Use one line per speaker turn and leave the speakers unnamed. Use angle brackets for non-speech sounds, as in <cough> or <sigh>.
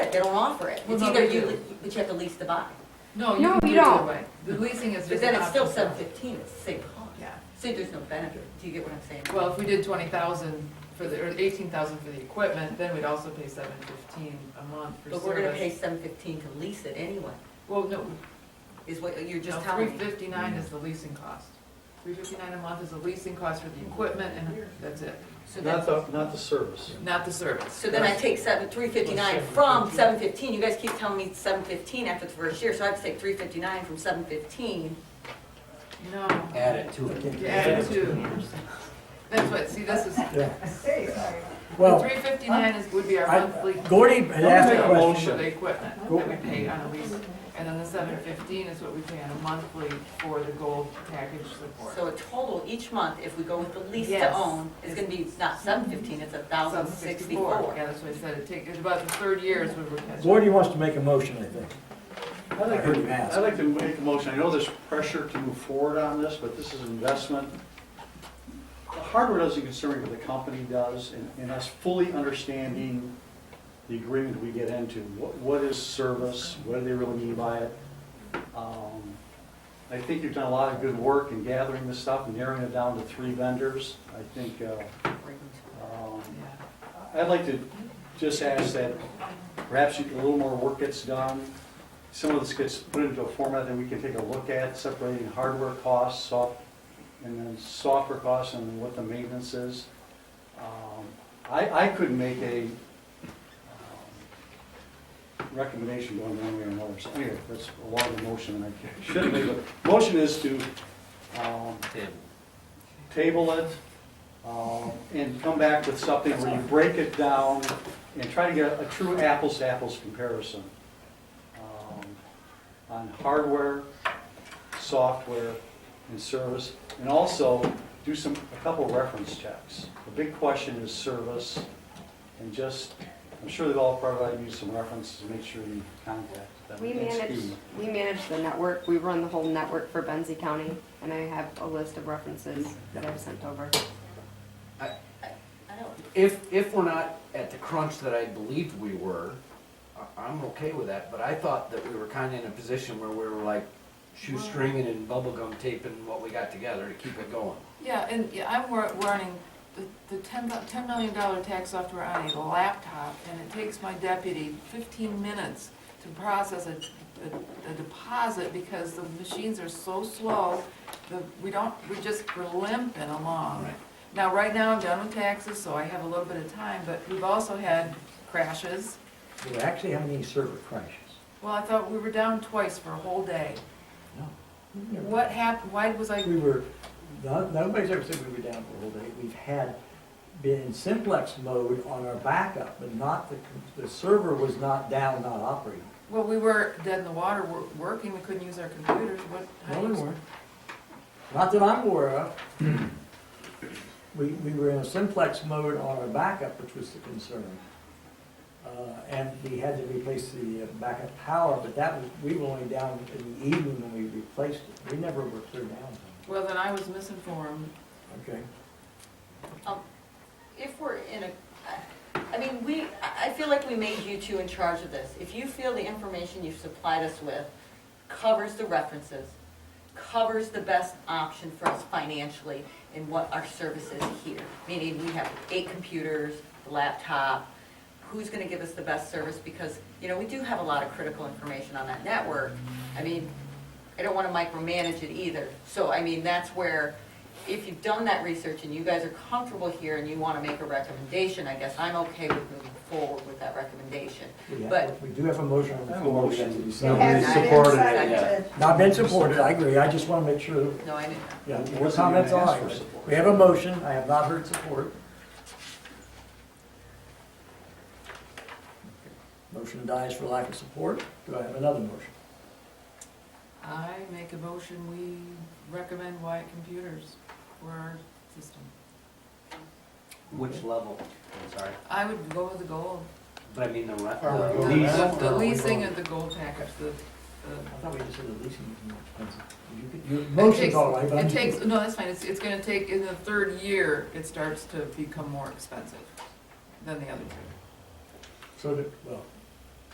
it, they don't offer it.
Well,
It's
no,
either
they
you,
do.
le- but you have to lease to buy.
No,
No,
you can
you
do it
don't.
that way. The leasing is
But
just.
then
an
it's still
option.
seven fifteen, it's the same cost.
Yeah.
See, there's no benefit, do you get what I'm saying?
Well, if we did twenty thousand for the, or eighteen thousand for the equipment, then we'd also pay seven fifteen a month for
But we're gonna pay
service.
seven fifteen to lease it anyway,
Well, no,
is what you're just
no, three
telling me.
fifty-nine is the leasing cost. Three fifty-nine a month is the leasing cost for the equipment and that's it,
So
Not
then,
the, not the service.
not the service.
so then I take seven, three fifty-nine from seven fifteen, you guys keep telling me seven fifteen after the first year, so I have to take three fifty-nine from seven fifteen.
No,
Add it to it.
you add two. That's what, see, this is,
Yeah.
the
Well,
three fifty-nine is, would be our
I-
monthly.
Gordy had asked a
For the
question.
equipment that we pay on a lease, and then the seven fifteen is what we pay on a monthly for the gold package support.
So a total each month, if we go with the lease to
Yes.
own, is gonna be, it's not seven fifteen, it's a thousand
Yeah,
sixty-four.
that's what I said, it take, it's about the third year is when we're catching.
Gordy wants to make a motion, I think.
I'd like
heard you
to,
ask.
I'd like to make a motion, I know there's pressure to move forward on this, but this is investment. The hardware doesn't concern me, but the company does, and, and us fully understanding the agreement we get into, what, what is service, what do they really mean by it? Um, I think you've done a lot of good work in gathering this stuff and narrowing it down to three vendors. I think, uh, um,
Yeah.
I'd like to just ask that perhaps a little more work gets done. Some of this gets put into a format that we can take a look at, separating hardware costs, soft, and then software costs and what the maintenance is. Um, I, I could make a um, recommendation going one way or another. So anyway, that's a lot of motion and I <laughs> shouldn't be, but motion is to um, table it, um, and come back with something where you break it down and try to get a true apples-to-apples comparison um, on hardware, software, and service, and also do some, a couple reference checks. The big question is service, and just, I'm sure they've all provided you some references to make sure you contact them.
We
That's
manage,
key.
we manage the network, we run the whole network for Benzie County, and I have a list of references that I've sent over.
I don't,
If, if we're not at the crunch that I believed we were, I- I'm okay with that, but I thought that we were kinda in a position where we were like shoestringing and bubblegum taping what we got together to keep it going.
Yeah, and yeah, I'm wor- warning, the, the ten, do- ten million dollar tax software on a laptop, and it takes my deputy fifteen minutes to process a, a- a deposit because the machines are so slow, the, we don't, we just, we're limping along.
Right.
Now, right now, I'm done with taxes, so I have a little bit of time, but we've also had crashes.
We actually haven't any server crashes.
Well, I thought we were down twice for a whole day.
No.
What happened, why was I,
We were, no- nobody's ever said we were down for a whole day. We've had, been in simplex mode on our backup, but not, the the server was not down, not operating.
well, we were dead in the water, we're working, we couldn't use our computers, what? how
No,
do
we
you-
weren't. Not that I'm aware of. We, we were in a simplex mode on our backup, which was the concern. Uh, And we had to replace the uh, backup power, but that was, we were only down in the evening when we replaced it. We never were clear down.
Well, then I was misinformed.
Okay.
Um, if we're in a, I- I mean, we, I I feel like we made you two in charge of this. If you feel the information you've supplied us with covers the references, covers the best option for us financially in what our service is here, meaning we have eight computers, the laptop, who's gonna give us the best service, because, you know, we do have a lot of critical information on that network. I mean, I don't wanna micromanage it either, so, I mean, that's where, if you've done that research and you guys are comfortable here and you wanna make a recommendation, I guess I'm okay with moving forward with that recommendation.
We
But-
have, we do have a motion on the
I have a
floor. we have to
motion.
decide.
Has not been
yeah.
seconded.
Not been supported, I agree. I just want to make sure,
No, I didn't.
yeah,
Wasn't
your
even
comments
asked
are.
for support.
We have a motion. I have not heard support. Motion dies for lack of support. Do I have another motion?
I make a motion, we recommend Wyatt Computers for our system.
Which level? I'm sorry,
I would go with the gold.
but I mean the re-
Are we
the
going
lease.
back?
The the
the-
leasing and the gold package, the,
I
the.
thought we just said the leasing was more expensive. You could- Your
it
motion's
takes-
all right, but I'm
It
just-
takes, no, that's fine, it's, it's gonna take, in the third year, it starts to become more expensive than the other two.
So that, well,